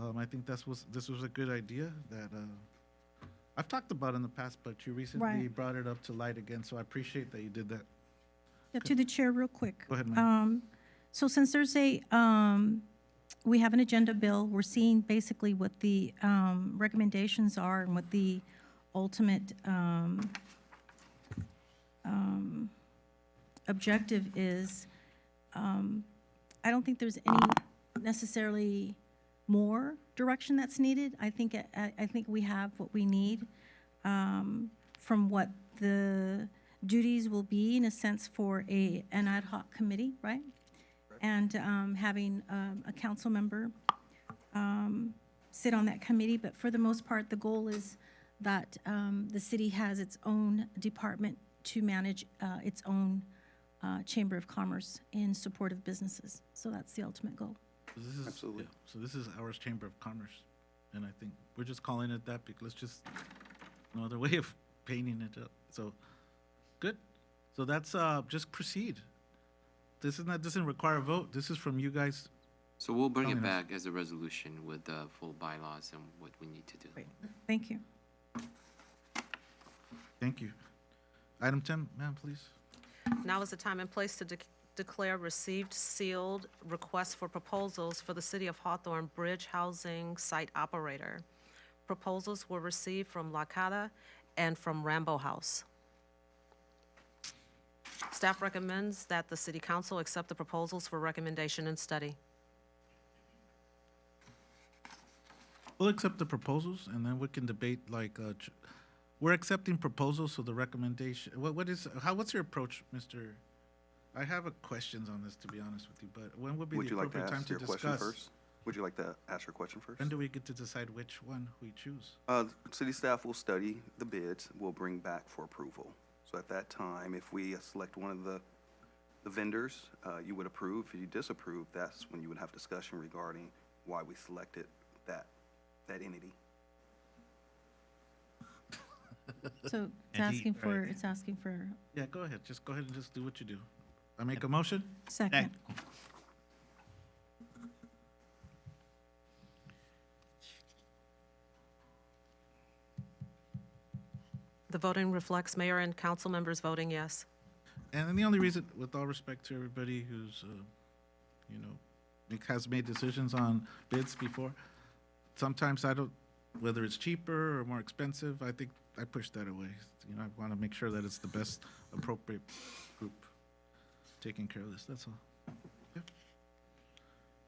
Um, I think that's was, this was a good idea that, uh, I've talked about in the past, but you recently Right. brought it up to light again, so I appreciate that you did that. Yeah, To the chair, real quick. Go ahead, ma'am. Um, So since there's a, um, we have an agenda bill, we're seeing basically what the um, recommendations are and what the ultimate um, um, objective is. Um, I don't think there's any necessarily more direction that's needed. I think, I I think we have what we need um, from what the duties will be in a sense for a, an ad hoc committee, right? And um, having um, a council member um, sit on that committee, but for the most part, the goal is that um, the city has its own department to manage uh, its own uh, Chamber of Commerce in support of businesses. So that's the ultimate goal. This is- Absolutely. yeah, So this is ours Chamber of Commerce, and I think we're just calling it that because just no other way of painting it up. So, good. So that's, uh, just proceed. This is not, doesn't require a vote. This is from you guys. So we'll bring Telling it us. back as a resolution with the full bylaws and what we need to do. Great. Thank you. Thank you. Item ten, ma'am, please. Now is the time and place to dec- declare received sealed requests for proposals for the City of Hawthorne Bridge Housing Site Operator. Proposals were received from Lakata and from Rambo House. Staff recommends that the City Council accept the proposals for recommendation and study. We'll accept the proposals and then we can debate like, uh, ch- we're accepting proposals, so the recommendation, what, what is, how, what's your approach, Mr.? I have a questions on this, to be honest with you, but when would be Would the you like to appropriate time ask to your question discuss? first? Would you like to ask your question first? When do we get to decide which one we choose? Uh, the city staff will study the bids, we'll bring back for approval. So at that time, if we select one of the, the vendors, uh, you would approve. If you disapprove, that's when you would have discussion regarding why we selected that, that entity. So it's And he- asking for, right. it's asking for Yeah, go ahead. Just go ahead and just do what you do. I make a motion? second. The voting reflects mayor and council members voting yes. And then the only reason, with all respect to everybody who's, uh, you know, make- has made decisions on bids before, sometimes I don't, whether it's cheaper or more expensive, I think I push that away. You know, I want to make sure that it's the best appropriate group taking care of this, that's all. Yeah.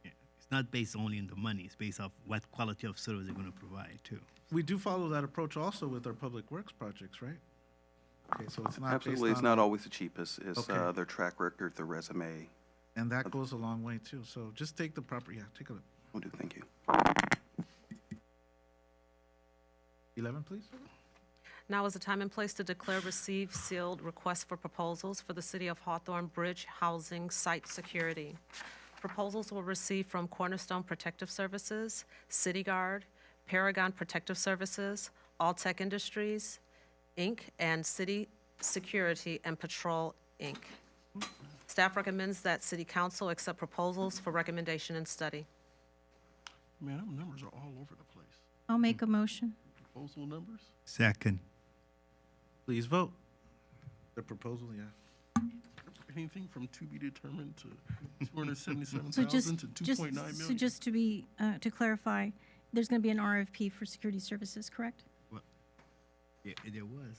It's not based only on the money, it's based off what quality of service they're gonna provide too. We do follow that approach also with our public works projects, right? Okay, so it's not based on. Absolutely, it's not always the cheapest, it's, Okay. uh, their track record, their resume. And that goes a long way too, so just take the proper, yeah, take a look. Will do, thank you. 11, please? Now is the time and place to declare received sealed requests for proposals for the City of Hawthorne Bridge Housing Site Security. Proposals were received from Cornerstone Protective Services, City Guard, Paragon Protective Services, All Tech Industries, Inc., and City Security and Patrol, Inc. Staff recommends that City Council accept proposals for recommendation and study. Man, them numbers are all over the place. I'll make a motion. Proposal numbers? Second. Please vote. The proposal, yeah. Anything from to be determined to two hundred seventy-seven So just, thousand to two just, point nine so million. just to be, uh, to clarify, there's going to be an RFP for security services, correct? Well, Yeah, there was.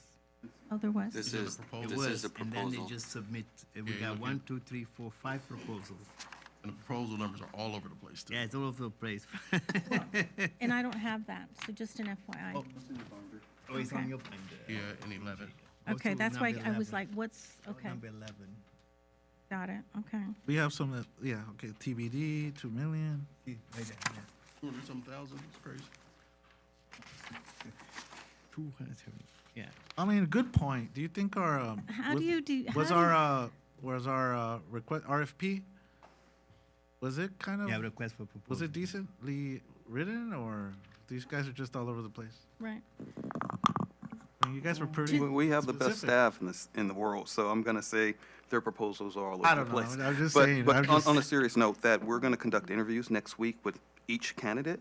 Oh, there was? This is, There this is was, a And then proposal. they just submit, uh, we Yeah, got okay. one, two, three, four, five proposals. And the proposal numbers are all over the place too. Yeah, it's all over the place. And I don't have that, so just an FYI. Oh, it's on okay. your binder. Yeah, and eleven. Go Okay, to that's why number I was 11. like, what's, Go okay, Number eleven. got it, okay. We have some that, yeah, okay, TBD, 2 million. See, right there, yeah. Two hundred some thousand, it's crazy. Two hundred seventy, yeah. I mean, good point. Do you think our, um, How was- do you do- Was how do our, you- uh, was our, uh, request, RFP? Was it kind Yeah, of, request for proposal. was it decently written or these guys are just all over the place? Right. I mean, you guys were Mm. pretty. We- We have the best specific. staff in this, in the world, so I'm gonna say their proposals are all I over don't the know. place. I'm just But- saying, I'm But on, just- on a serious note, that we're gonna conduct interviews next week with each candidate,